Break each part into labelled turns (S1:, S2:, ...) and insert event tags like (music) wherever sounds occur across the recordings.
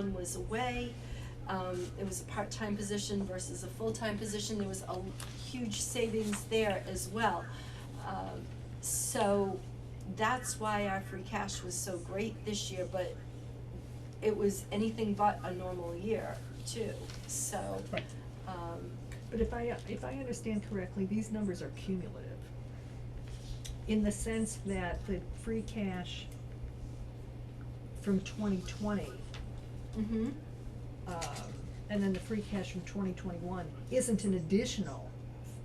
S1: Jim was away. Um, it was a part-time position versus a full-time position, there was a huge savings there as well. Um, so that's why our free cash was so great this year, but it was anything but a normal year too, so.
S2: Right.
S1: Um,
S3: But if I, if I understand correctly, these numbers are cumulative. In the sense that the free cash from twenty twenty,
S1: mhm,
S3: um, and then the free cash from twenty twenty-one isn't an additional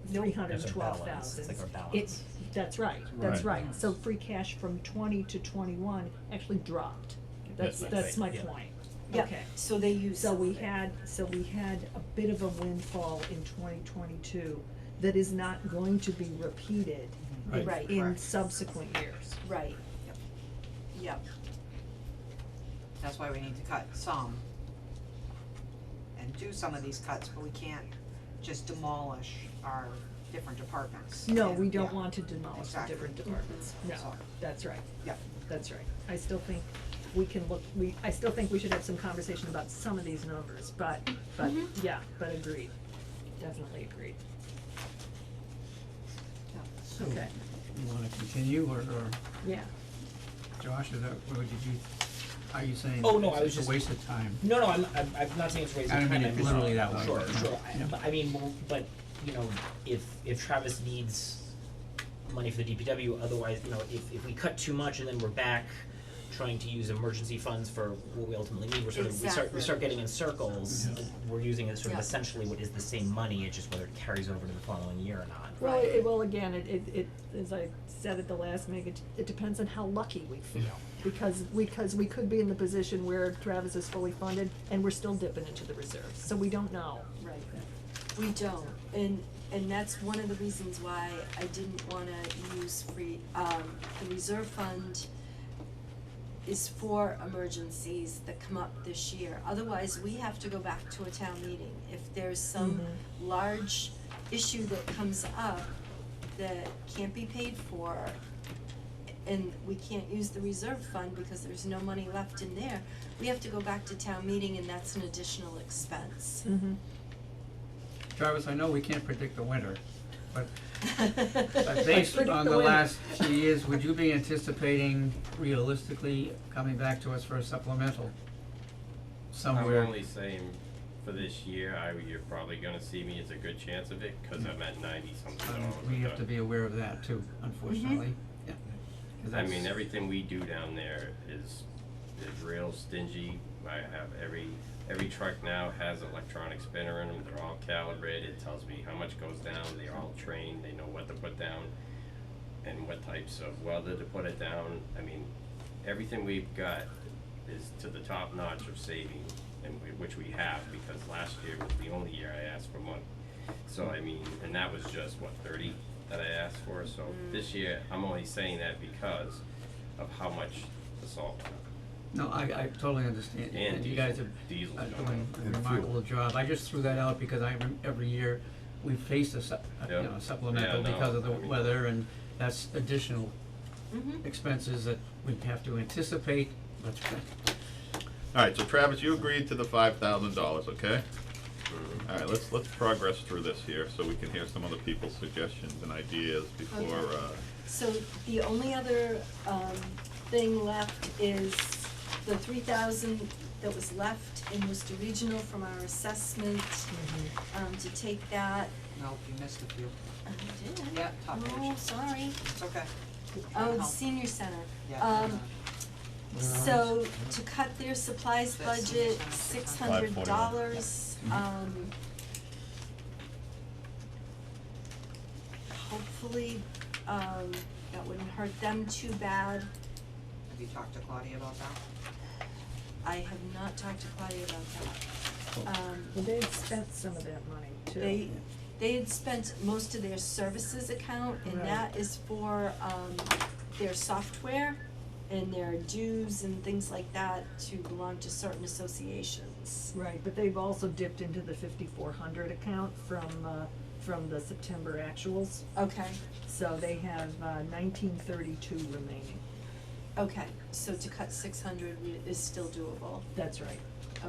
S1: Nope.
S3: three hundred and twelve
S2: That's
S3: thousand.
S2: our balance. It's like our balance.
S3: that's right, that's
S4: Right.
S3: right, so free cash from twenty to twenty-one actually dropped, that's,
S2: That's
S3: that's my
S2: right,
S3: point,
S2: yeah.
S1: yeah,
S3: Okay.
S1: so they used
S3: So we
S1: something.
S3: had, so we had a bit of a windfall in twenty twenty-two that is not going to be repeated
S4: Right.
S1: Right.
S3: in
S5: Correct.
S3: subsequent years.
S1: Right, yep,
S5: That's why we need to cut some. And do some of these cuts, but we can't just demolish our different departments.
S3: No, we don't
S5: Yeah.
S3: want to demolish the
S5: Exactly.
S3: different departments, no,
S5: So-
S3: that's right,
S5: Yep,
S3: that's right. I still think we can look, we, I still think we should have some conversation about some of these numbers, but, but,
S1: Mhm.
S5: Mm-hmm.
S3: yeah, but agreed, definitely agreed.
S5: yeah.
S4: So,
S3: Okay.
S4: you wanna continue, or, or
S3: Yeah,
S4: Josh, is that, or did you, are you saying
S2: Oh, no, I was
S4: it's
S2: just-
S4: a waste of time?
S2: No, no, I'm, I'm, I'm not saying it's raising
S4: I
S2: time,
S4: don't
S2: I'm
S4: mean it
S2: just.
S4: literally that way,
S2: Sure,
S4: but-
S2: sure, I,
S4: yeah.
S2: but I mean, well, but, you know, if, if Travis needs money for the DPW, otherwise, you know, if, if we cut too much and then we're back trying to use emergency funds for what we ultimately need, we're sort of, we start, we
S1: Exactly.
S2: start getting in circles.
S4: Yeah.
S2: We're using it sort of
S1: Yeah.
S2: essentially what is the same money, it's just whether it carries over to the following year or not.
S3: well,
S1: Right.
S3: it, well, again, it, it, it, as I said at the last meeting, it, it depends on how lucky we feel. Because, because we could be in the position where Travis is fully funded and we're still dipping into the reserves, so we don't know.
S1: right. We don't, and, and that's one of the reasons why I didn't wanna use free, um, the reserve fund is for emergencies that come up this year. Otherwise, we have to go back to a town meeting. If there's some large issue that comes up that can't be paid for, and we can't use the reserve fund because there's no money left in there, we have to go back to town meeting and that's an additional expense.
S3: Mm-hmm.
S4: Travis, I know we can't predict the winter,
S2: (laughs)
S4: but
S1: I
S4: but based
S3: Predict
S4: on
S3: the
S4: the
S3: winter.
S4: last few years, would you be anticipating realistically coming back to us for a supplemental? Somewhere.
S6: I'm only saying for this year, I, you're probably gonna see me, it's a good chance of it, cause I'm at ninety something
S4: Um,
S6: dollars.
S4: we
S6: a
S4: have to
S6: ton.
S4: be aware of that too, unfortunately, yeah.
S2: Mm-hmm.
S4: 'Cause
S6: I
S4: that's-
S6: mean, everything we do down there is, is real stingy, I have every, every truck now has electronic spinner in them, they're all calibrated, it tells me how much goes down, they're all trained, they know what to put down. And what types of welder to put it down, I mean, everything we've got is to the top notch of saving, and we, which we have, because last year was the only year I asked for money. So I mean, and that was just what thirty that I asked for, so this year, I'm only saying that because of how much the salt went up.
S4: No, I, I totally understand,
S6: And
S4: and you
S6: diesel-
S4: guys have,
S6: diesel's
S4: are
S6: going
S4: doing
S6: up.
S4: a
S7: And
S4: remarkable job, I just threw that out because I, rem- every year, we face a sup- a,
S6: Yeah.
S4: you know, supplemental
S6: Yeah, no,
S4: because of the
S6: I mean-
S4: weather, and that's additional
S1: Mhm.
S4: expenses that we have to anticipate, but
S7: Alright, so Travis, you agreed to the five thousand dollars, okay? Alright, let's, let's progress through this here, so we can hear some other people's suggestions and ideas before,
S1: Okay.
S7: uh,
S1: So the only other um thing left is the three thousand that was left in Worcester Regional from our assessment. Um to take that,
S5: Nope, you missed a few.
S1: I Uh, did.
S5: Yeah, top
S1: Oh,
S5: page.
S1: sorry,
S5: It's okay.
S1: oh,
S5: No.
S1: the senior center.
S5: Yeah,
S1: Um
S5: no.
S1: so to cut their supplies
S5: That's
S1: budget, six
S5: six
S1: hundred
S7: hundred.
S1: dollars, um. Hopefully, um that wouldn't hurt them too bad.
S5: Have you talked to Claudia about that?
S1: I have not talked to Claudia about that. Um,
S3: Well, they've spent some of that money too.
S1: they, they had spent most of their services account, and
S3: Right.
S1: that is for, um, their software and their dues and things like that to belong to certain associations.
S3: Right, but they've also dipped into the fifty-four hundred account from, uh, from the September actuals,
S1: Okay,
S3: so they have, uh, nineteen thirty-two remaining,
S1: okay, so to cut six hundred is still doable.
S3: that's right.